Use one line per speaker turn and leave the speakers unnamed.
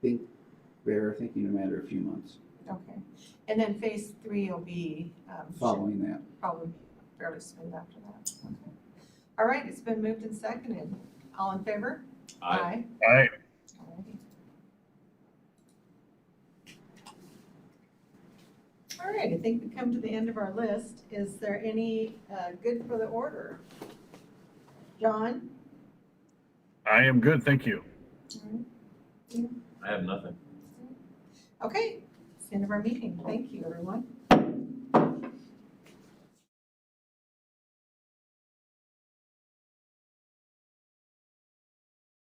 think they're thinking a matter of a few months
Okay, and then phase three will be, um, should
following that.
probably be fairly smooth after that, okay. All right, it's been moved and seconded, all in favor?
I,
Aye.
Alrighty. All right, I think we come to the end of our list, is there any, uh, good for the order? John?
I am good, thank you.
I have nothing.
Okay, it's the end of our meeting, thank you, everyone.